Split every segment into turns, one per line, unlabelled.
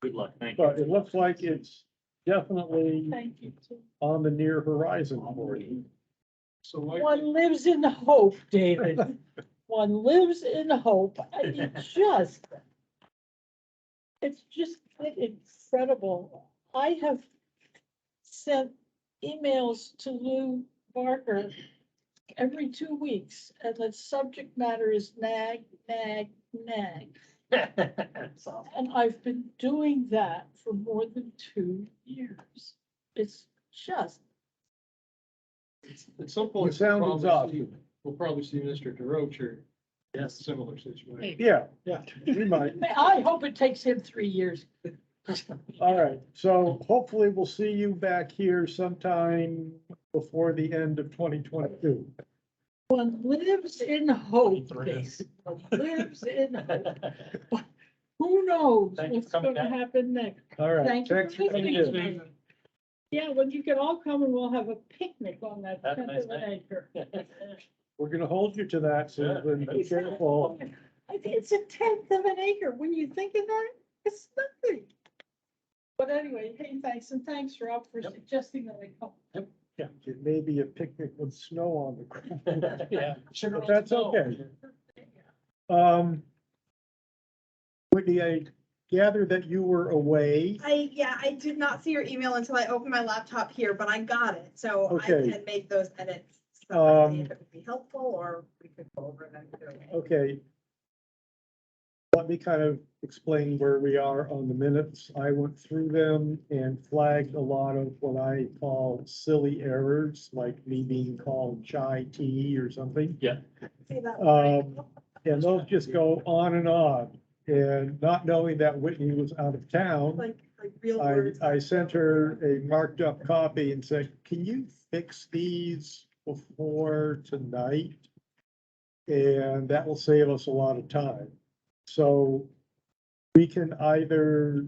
Good luck. Thank
But it looks like it's definitely
Thank you. too.
on the near horizon for you.
So like,
One lives in hope, David. One lives in hope. I mean, just. It's just incredible. I have sent emails to Lou Barker every two weeks and the subject matter is nag, nag, nag.
you.
And I've been doing that for more than two years. It's just,
at some
It
point. we'll
sounds
probably
exhausted.
see- We'll probably see Mr. DeRoche or
Yes.
similar situation.
Yeah, yeah, we might.
I hope it takes him three years
All right, so hopefully we'll see you back here sometime before the end of twenty twenty-two.
One lives in hope, basically, lives in hope. Who knows
Thank you for
what's
coming
gonna
down.
happen next?
All right,
Thank you
thanks
for
for coming
listening.
in.
Thank Yeah, when you can all come and we'll have a picnic on that
That's
tenth
nice,
of an
man.
acre.
We're gonna hold you to that, so
Yeah.
be careful.
I think It's a tenth of an acre. When you think of that, it's nothing. But anyway, hey, thanks, and thanks, Rob, for
Yep.
suggesting that I come.
Yeah, It may be a picnic with snow on the ground.
Yeah.
But that's okay. Um, Whitney, I gather that you were away.
I, yeah, I did not see your email until I opened my laptop here, but I got it, so I
Okay.
can make those edits. separately
Um, uh,
If it would be helpful, or we could go over them. either way.
Okay. Let me kind of explain where we are on the minutes. I went through them and flagged a lot of what I call silly errors, like me being called chai tea or something.
Say that.
Um, and those just go on and on. And not knowing that Whitney was out of town,
Like, like real
I,
words.
I sent her a marked up copy and said, can you fix these before tonight? And that will save us a lot of time. So we can either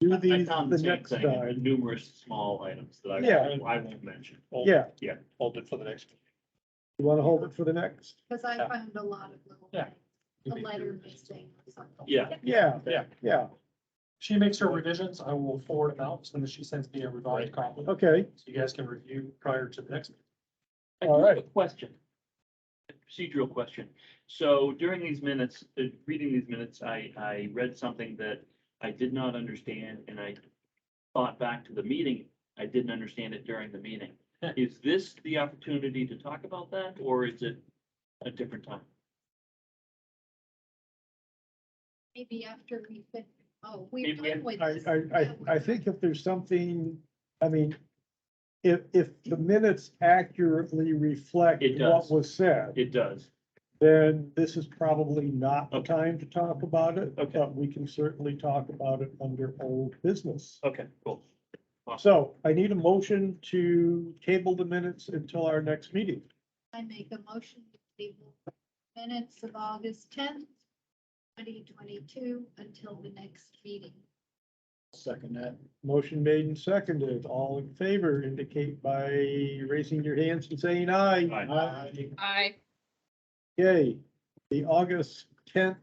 do
I
these
found the
the
same
next
thing, in the
time.
numerous small items that
Yeah.
I, I won't mention.
Yeah,
Hold it for the next.
you want to hold it for the next?
Because I found a lot of little
Yeah.
things, a letter missing or something.
Yeah,
Yeah,
Yeah.
yeah,
She makes her revisions, I will forward them out, as soon as she sends me a revised copy, so
okay.
you guys can review prior to the next. meeting.
I
All
do have a
right.
Question. Procedural question. So during these minutes, uh, reading these minutes, I, I read something that I did not understand and I thought back to the meeting. I didn't understand it during the meeting. Is this the opportunity to talk about that or is it a different time?
Maybe after we fit, oh,
Maybe
we've done with
I,
this.
I, I, I think if there's something, I mean, if, if the minutes accurately reflect
It does.
what was said,
It does.
then this is probably not the
Okay.
time to talk about it.
Okay.
But we can certainly talk about it under old business.
Okay, cool.
So I need a motion to table the minutes until our next meeting.
I make a motion to table minutes of August tenth, twenty twenty-two until the next meeting.
Second that. Motion made and seconded. All in favor indicate by raising your hands and saying aye.
Aye.
Aye.
I
Okay, the August tenth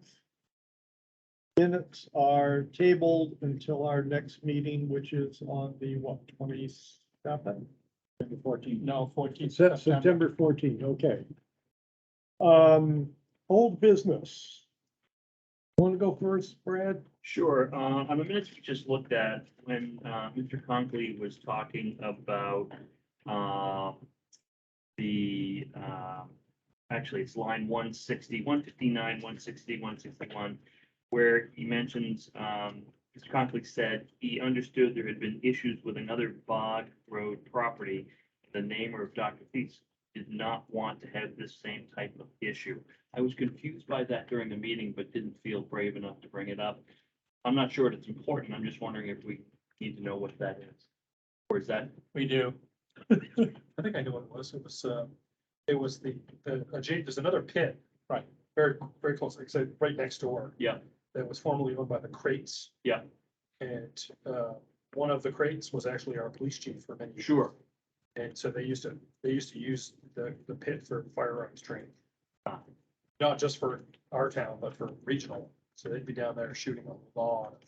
minutes are tabled until our next meeting, which is on the, what, twenty-seventh?
Fourteen, no, fourteen. September.
September fourteenth, okay. Um, old business. Want to go first, Brad?
Sure, uh, on the minutes we just looked at, when, uh, Mr. Conkley was talking about, um, the, um, actually, it's line 160, 159, 160, 161, where he mentions, um, Mr. Conkley said he understood there had been issues with another bog road property. The neighbor of Dr. Thies did not want to have this same type of issue. I was confused by that during the meeting, but didn't feel brave enough to bring it up. I'm not sure it's important. I'm just wondering if we need to know what that is. Or is that,
We do. I think I know what it was, it was, uh, it was the, the, adja- there's another pit. Right. Very, very close, like I said, right next door.
Yeah.
That was formerly owned by the Crates.
Yeah.
And, uh, one of the Crates was actually our police chief for many years.
sure,
And so they used to, they used to use the, the pit for firearms training.
Ah.
Not just for our town, but for regional. So they'd be down there shooting a lot of